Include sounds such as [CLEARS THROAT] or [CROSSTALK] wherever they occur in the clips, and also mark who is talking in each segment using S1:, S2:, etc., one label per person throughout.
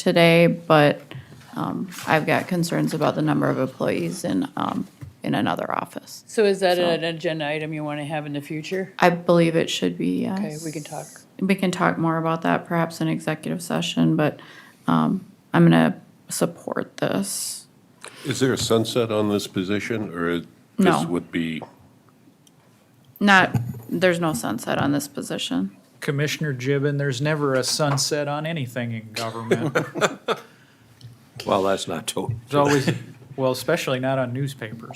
S1: today, but um, I've got concerns about the number of employees in, um, in another office.
S2: So is that
S1: So-
S2: an agenda item you want to have in the future?
S1: I believe it should be, yes.
S2: Okay, we can talk.
S1: We can talk more about that perhaps in executive session, but um, I'm going to support this.
S3: Is there a sunset on this position, or it-
S1: No.
S3: this would be,
S1: Not, there's no sunset on this position.
S4: Commissioner Gibbon, there's never a sunset on anything in government.
S5: Well, that's not true.
S4: There's always, well, especially not on newspapers.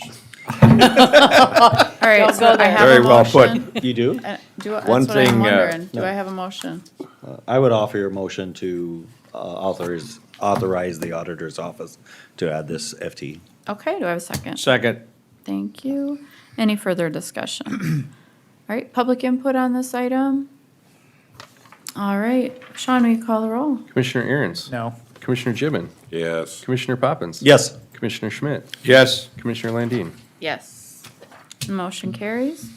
S1: All right,
S2: Don't
S1: so
S2: go
S1: I
S2: there.
S1: have a motion.
S6: You do?
S1: Uh, Do, that's
S6: One
S1: what I'm
S6: thing, uh,
S1: wondering. Do
S6: no.
S1: I have a motion?
S6: I would offer your motion to uh, authorize, authorize the auditor's office to add this FT.
S1: Okay, do I have a second?
S5: Second,
S1: Thank you. Any further discussion? [CLEARS THROAT] All right, public input on this item? All right, Sean, will you call the roll?
S7: Commissioner Aaron's.
S4: No.
S7: Commissioner Gibbon.
S3: yes,
S7: Commissioner Poppins.
S6: Yes.
S7: Commissioner Schmidt.
S5: yes,
S7: Commissioner Landine.
S1: Yes. Motion carries.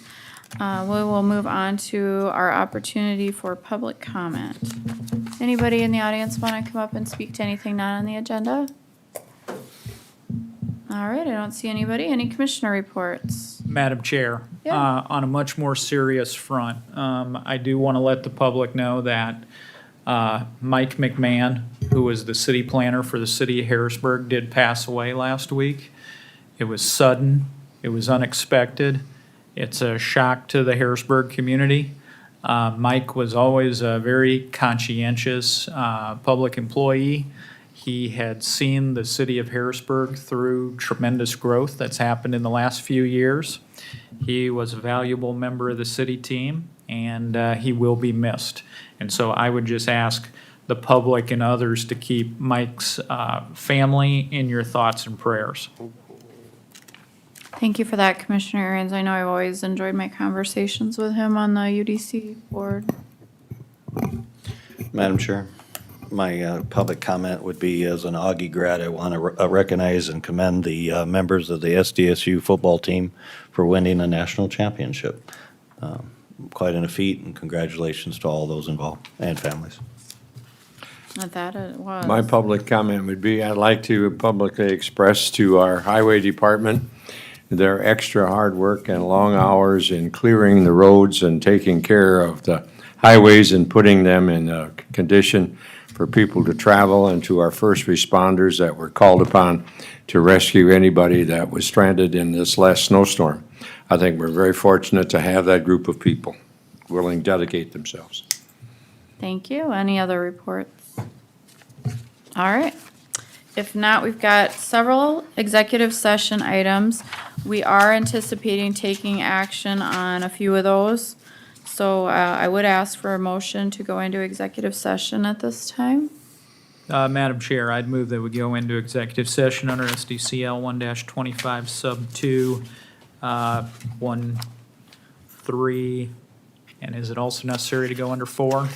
S1: Uh, We will move on to our opportunity for public comment. Anybody in the audience want to come up and speak to anything not on the agenda? All right, I don't see anybody. Any commissioner reports?
S4: Madam Chair,
S1: Yeah.
S4: uh, on a much more serious front, um, I do want to let the public know that uh, Mike McMahon, who was the city planner for the city of Harrisburg, did pass away last week. It was sudden, it was unexpected, it's a shock to the Harrisburg community. Uh, Mike was always a very conscientious uh, public employee. He had seen the city of Harrisburg through tremendous growth that's happened in the last few years. He was a valuable member of the city team, and uh, he will be missed. And so I would just ask the public and others to keep Mike's uh, family in your thoughts and prayers.
S1: Thank you for that, Commissioner Aaron's. I know I've always enjoyed my conversations with him on the UDC board.
S6: Madam Chair, my uh, public comment would be, as an Augie grad, I want to recognize and commend the uh, members of the SDSU football team for winning a national championship. Um, Quite an feat, and congratulations to all those involved and families.
S1: Not that it was.
S5: my public comment would be, I'd like to publicly express to our highway department their extra hard work and long hours in clearing the roads and taking care of the highways and putting them in a condition for people to travel and to our first responders that were called upon to rescue anybody that was stranded in this last snowstorm. I think we're very fortunate to have that group of people willing to dedicate themselves.
S1: Thank you. Any other reports? All right. If not, we've got several executive session items. We are anticipating taking action on a few of those. So uh, I would ask for a motion to go into executive session at this time.
S4: Uh, Madam Chair, I'd move that we go into executive session under SDCL one twenty-five sub two, uh, one, three, and is it also necessary to go under four?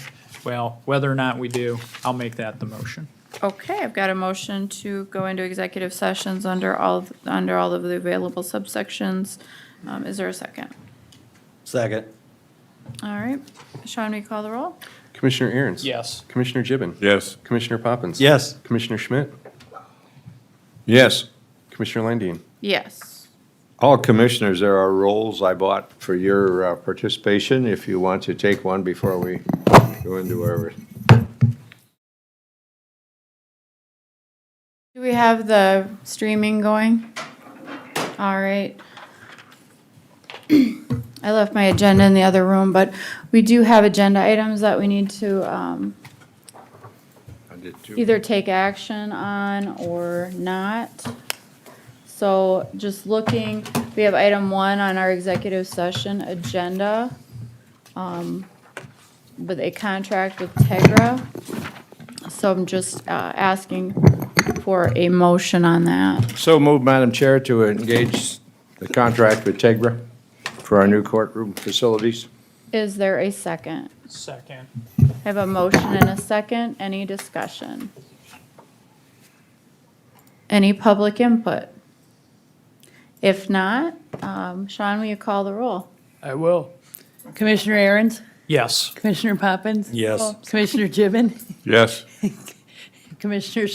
S4: Well, whether or not we do, I'll make that the motion.
S1: Okay, I've got a motion to go into executive sessions under all, under all of the available subsections. Um, Is there a second?
S6: Second.
S1: All right. Sean, we call the roll?
S7: Commissioner Aaron's.
S4: Yes.
S7: Commissioner Gibbon.
S3: yes.
S7: Commissioner Poppins.
S6: Yes.
S7: Commissioner Schmidt.
S5: Yes.
S7: Commissioner Landine.
S1: Yes.
S5: All commissioners, there are rolls I bought for your uh, participation, if you want to take one before we go into our
S1: Do we have the streaming going? All right. [CLEARS THROAT] I left my agenda in the other room, but we do have agenda items that we need to um,
S5: I did two.
S1: either take action on or not. So just looking, we have item one on our executive session agenda um, with a contract with Tegra. So I'm just uh, asking for a motion on that.
S5: So moved, Madam Chair, to engage the contract with Tegra for our new courtroom facilities.
S1: Is there a second?
S4: Second.
S1: I have a motion and a second. Any discussion? Any public input? If not, um, Sean, will you call the roll?
S2: I will. Commissioner Aaron's,
S4: Yes.
S2: Commissioner Poppins?
S6: Yes.
S2: Commissioner Gibbon,
S3: Yes.
S2: [LAUGHS] Commissioner